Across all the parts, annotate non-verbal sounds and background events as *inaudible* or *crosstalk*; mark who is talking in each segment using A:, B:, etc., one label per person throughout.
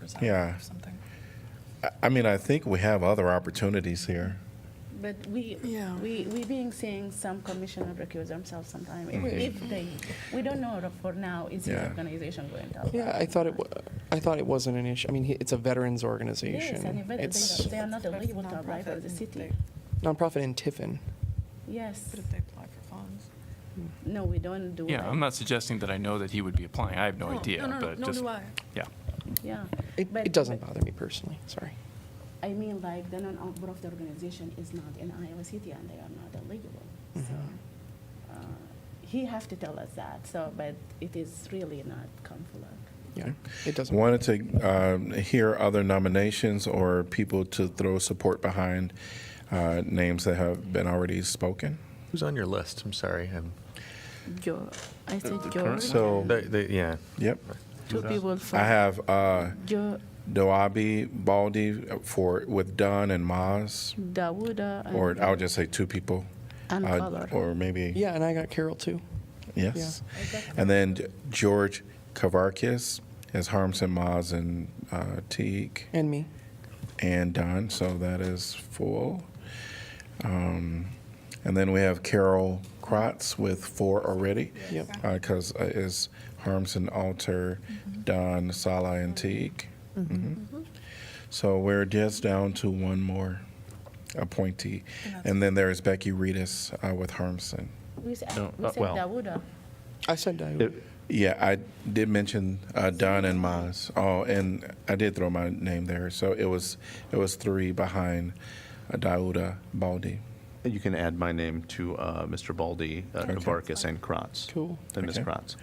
A: hours out
B: Yeah.
A: or something.
B: I- I mean, I think we have other opportunities here.
C: But we,
A: Yeah.
C: we, we being seeing some commissioner recuse themselves sometime, if,
B: Mhm.
C: if they, we don't know for now, is the
B: Yeah.
C: organization going to allow?
D: Yeah, I thought it, wa- I thought it wasn't an issue. I mean, he- it's a veterans
C: Yes,
D: organization.
C: and they,
D: It's
C: they are not eligible to apply for
A: Nonprofit,
C: the city,
A: they-
D: nonprofit in Tiffin.
C: yes,
A: But if they apply for funds.
C: no, we don't do that.
E: Yeah, I'm not suggesting that I know that he would be applying. I have no idea,
A: No, no,
E: but
A: no,
E: just,
A: do I.
E: yeah.
C: Yeah.
D: It,
C: But-
D: it doesn't
C: but-
D: bother me personally, sorry.
C: I mean, like, the non-profit organization is not in Iowa City and they are not eligible. So,
D: Mm-hmm.
C: uh, he have to tell us that, so, but it is really not conflict.
D: Yeah, it doesn't.
B: Wanted to um, hear other nominations or people to throw support behind uh, names that have been already spoken.
F: Who's on your list? I'm sorry. Um,
C: George, I said George,
B: current- So-
F: they, they, yeah.
B: Yep.
C: two people
B: I
C: from
B: have uh,
C: George,
B: Doabi Baldi for with Dunn and Maz,
C: Dawuda, and.
B: or I'll just say two people,
C: And
B: uh,
C: Color.
B: or maybe
D: Yeah, and I got Carol too.
B: yes, and then George Kavarkis as Harms and Maz and uh, Teague.
D: And me.
B: and Don, so that is full. Um, and then we have Carol Kratz with four already,
D: Yep.
B: because uh, is Harmson, Alter, Don, Salah, and Teague. Mhm. So we're just down to one more appointee, and then there is Becky Reedus uh, with Harmson.
C: We said,
F: No,
C: we
F: uh,
C: said
F: well.
C: Dawuda.
D: I said I would.
B: Yeah, I did mention uh, Don and Maz. Oh, and I did throw my name there, so it was it was three behind uh, Dauda Baldi.
F: You can add my name to uh, Mr. Baldy, uh,
B: Okay.
F: Vargas, and Kratz.
D: Cool.
F: Then Ms.
B: Okay.
F: Kratz.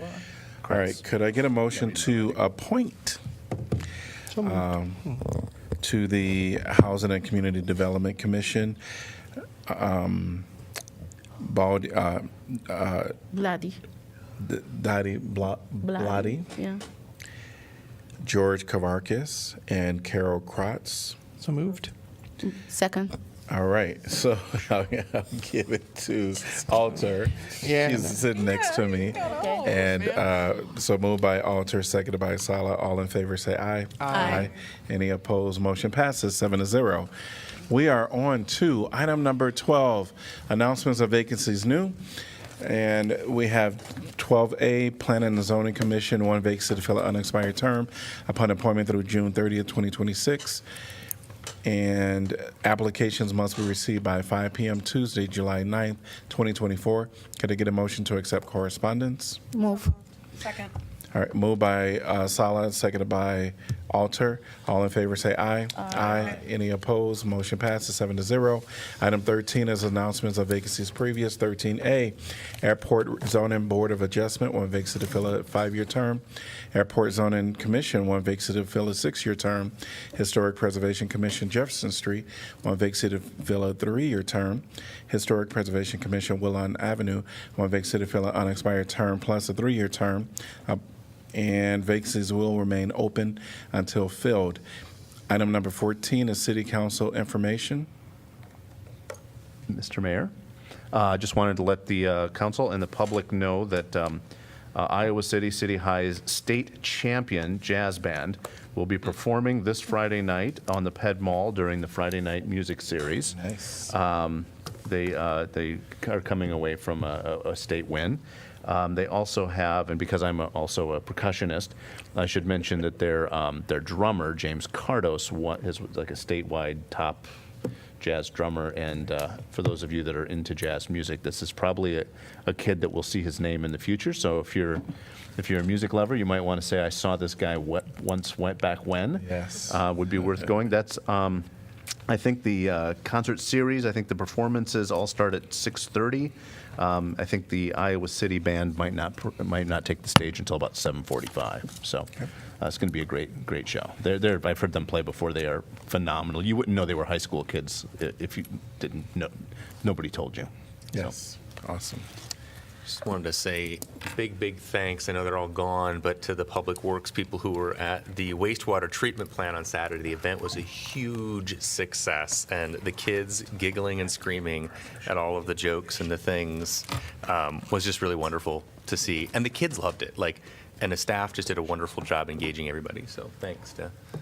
B: All right, could I get a motion to appoint um,
D: So moved.
B: to the Housing and Community Development Commission? Um, Baldi, uh,
C: Bloody.
B: D- Dottie Bla- Blotti,
C: Yeah.
B: George Kavarkis, and Carol Kratz.
D: So moved.
C: Second.
B: All right, so *laughs* I'll give it to Alter.
D: Yeah.
B: She's sitting next to me. And uh, so moved by Alter, seconded by Sala. All in favor, say aye. Aye. Any opposed? Motion passes seven to zero. We are on to item number 12, announcements of vacancies new. And we have 12A, Planning and Zoning Commission, one vacancy to fill an unexpired term upon appointment through June 30th, 2026. And applications must be received by 5 PM Tuesday, July 9th, 2024. Could I get a motion to accept correspondence?
C: Move.
A: Second.
B: All right, moved by uh, Sala, seconded by Alter. All in favor, say aye. Aye. Any opposed? Motion passes seven to zero. Item 13 is announcements of vacancies previous. 13A, Airport Zoning Board of Adjustment, one vacancy to fill a five-year term. Airport Zoning Commission, one vacancy to fill a six-year term. Historic Preservation Commission, Jefferson Street, one vacancy to fill a three-year term. Historic Preservation Commission, Willon Avenue, one vacancy to fill an unexpired term plus a three-year term. Uh, and vacancies will remain open until filled. Item number 14 is city council information.
F: Mr. Mayor, uh, I just wanted to let the uh, council and the public know that um, uh, Iowa City City High's state champion jazz band will be performing this Friday night on the Ped Mall during the Friday Night Music Series.
B: Nice.
F: Um, They, uh, they are coming away from a, a a state win. Um, They also have, and because I'm a- also a percussionist, I should mention that their, um, their drummer, James Cardos, wa- is like a statewide top jazz drummer. And uh, for those of you that are into jazz music, this is probably a, a kid that will see his name in the future. So if you're, if you're a music lover, you might want to say, I saw this guy wh- once, went back when.
B: Yes.
F: Uh, Would be worth going. That's, um, I think the uh, concert series, I think the performances all start at 6:30. Um, I think the Iowa City Band might not, pr- might not take the stage until about 7:45. So uh, it's going to be a great, great show. They're, they're, I've heard them play before. They are phenomenal. You wouldn't know they were high school kids i- if you didn't know, nobody told you. So-
B: Yes. Awesome.
G: Just wanted to say big, big thanks. I know they're all gone, but to the public works people who were at the wastewater treatment plant on Saturday. The event was a huge success, and the kids giggling and screaming at all of the jokes and the things um, was just really wonderful to see. And the kids loved it. Like, and the staff just did a wonderful job engaging everybody. So thanks to